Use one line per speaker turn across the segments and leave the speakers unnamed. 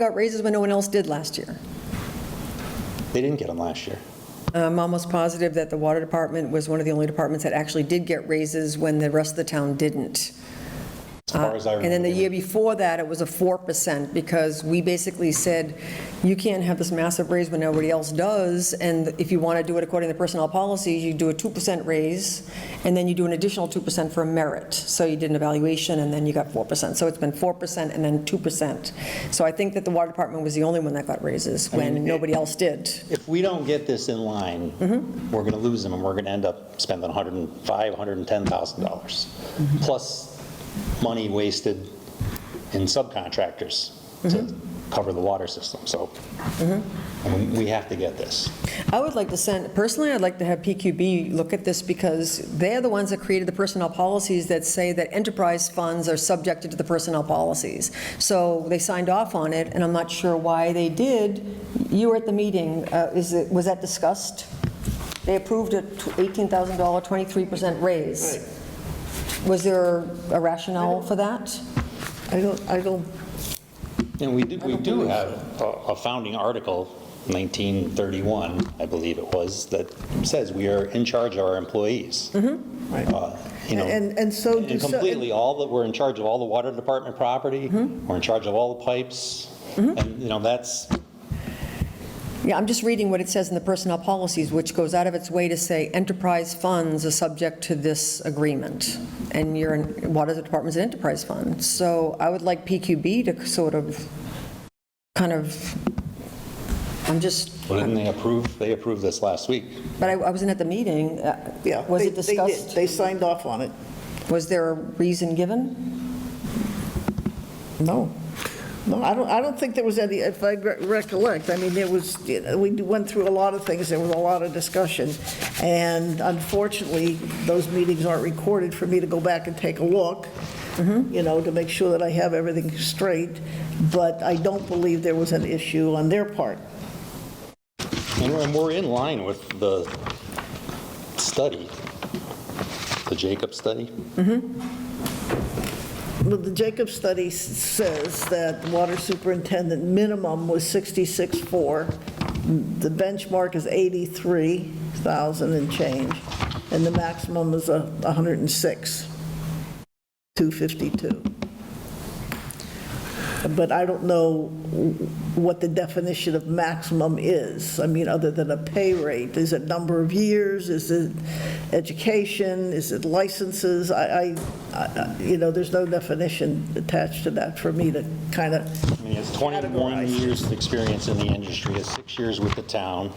got raises when no one else did last year.
They didn't get them last year.
Um, I'm almost positive that the water department was one of the only departments that actually did get raises when the rest of the town didn't.
As far as I
Uh, And
remember.
then the
they
year before that, it was a 4% because we basically said, you can't have this massive raise when nobody else does. And if you want to do it according to personnel policies, you do a 2% raise and then you do an additional 2% for merit. So you did an evaluation and then you got 4%. So it's been 4% and then 2%. So I think that the water department was the only one that got raises when
mean, it-
nobody else did.
If we don't get this in line,
Mm-hmm.
we're going to lose them, and we're going to end up spending 105, $110,000,
Mm-hmm.
plus money wasted in subcontractors to
Mm-hmm.
cover the water system, so we- we have to get this.
I would like to send, personally, I'd like to have PQB look at this because they're the ones that created the personnel policies that say that enterprise funds are subjected to the personnel policies. So they signed off on it, and I'm not sure why they did. You were at the meeting, Uh, is it, was that discussed? They approved a tw- $18,000, 23% raise. Was there a rationale for that?
I don't, I don't,
And we do, we do have a a founding article, 1931, I believe it was, that says we are in charge of our employees. Uh, You know,
Mm-hmm. and, and Mm-hmm. so. do
And
so-
completely, all that, we're in charge of all the water department property, we're in charge of all the pipes,
Mm-hmm.
and, you know, that's,
Yeah, I'm just reading what it says in the personnel policies, which goes out of its way to say enterprise funds are subject to this agreement, and your water department's an enterprise fund. So I would like PQB to sort of, kind of, I'm just,
well, didn't they approve, they approved this last week.
but I I wasn't at the meeting. Uh,
Yeah.
Was it
they- they did.
discussed?
They signed off on it.
Was there a reason given?
No. No, I don't, I don't think there was any, if I re- recollect, I mean, there was, we went through a lot of things, there was a lot of discussion, and unfortunately, those meetings aren't recorded for me to go back and take a look,
Mm-hmm.
you know, to make sure that I have everything straight, but I don't believe there was an issue on their part.
And we're- and we're in line with the study, the Jacob study.
Well, the Jacobs study s- says that the water superintendent minimum was 66.4. The benchmark is 83,000 and change, and the maximum is a 106, 252. But I don't know what the definition of maximum is. I mean, other than a pay rate, is it number of years, is it education, is it licenses? I, I- I, you know, there's no definition attached to that for me to kind of,
I mean, it's 21
Categorized.
years of experience in the industry, it's six years with the town,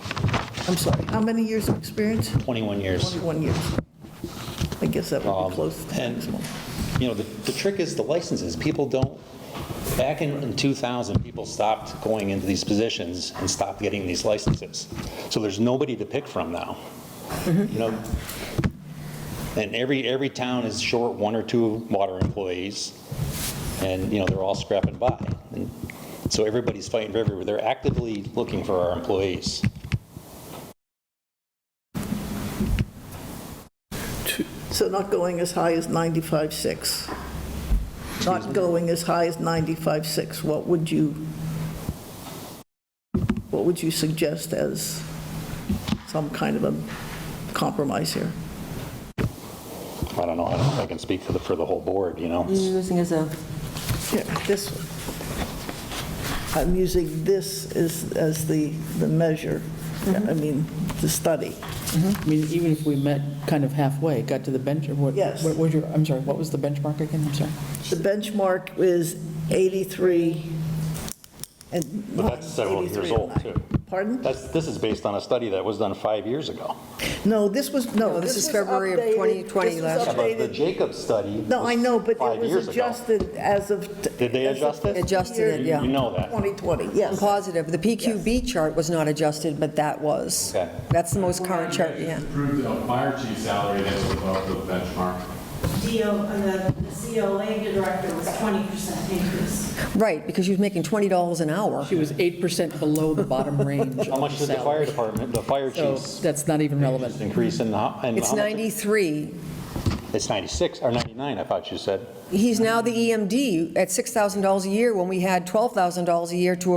I'm sorry, how many years of experience?
21 years.
21 years. I guess that would
Um,
be close to
And,
maximum.
you know, the, the trick is the licenses, people don't, back in in 2000, people stopped going into these positions and stopped getting these licenses. So there's nobody to pick from now, you know? And every, every town is short one or two water employees, and, you know, they're all scrapping by. And So everybody's fighting for everywhere, they're actively looking for our employees.
So not going as high as 95.6. Not going as high as 95.6, what would you, what would you suggest as some kind of a compromise here?
I don't know, I don't know if I can speak for the, for the whole board, you know?
Using as a.
Yeah, this one. I'm using this as, as the, the measure, I mean, the study.
I mean, even if we met kind of halfway, got to the bench, or what?
Yes.
What was your, I'm sorry, what was the benchmark again? I'm sorry.
The benchmark is 83 and.
But that's several years
83 and
old,
nine.
too.
Pardon?
That's, this is based on a study that was done five years ago.
No, this was,
No,
no,
this
this
is
was
February of
updated-
2020
this was
last
Yeah, but the
updated-
Jacobs study.
No, I know, but
five
it was
years ago.
adjusted as of.
Did they adjust it?
Adjusted it, yeah.
You know that.
2020,
I'm
yes.
positive. The PQB chart was not adjusted, but that was.
Okay.
That's the most current chart, yeah.
Approved the fire chief salary that was above the benchmark.
DO, uh, the the COA director was 20% increase.
Right, because she was making $20 an hour.
She was 8% below the bottom range.
How much
of
did the fire
salary.
department, the fire
So
chiefs
that's not even relevant.
increase in? the ho- in
It's
how much?
93.
It's 96, or 99, I thought you said.
E He's now the EMD at $6,000 a year when we had $12,000 a year to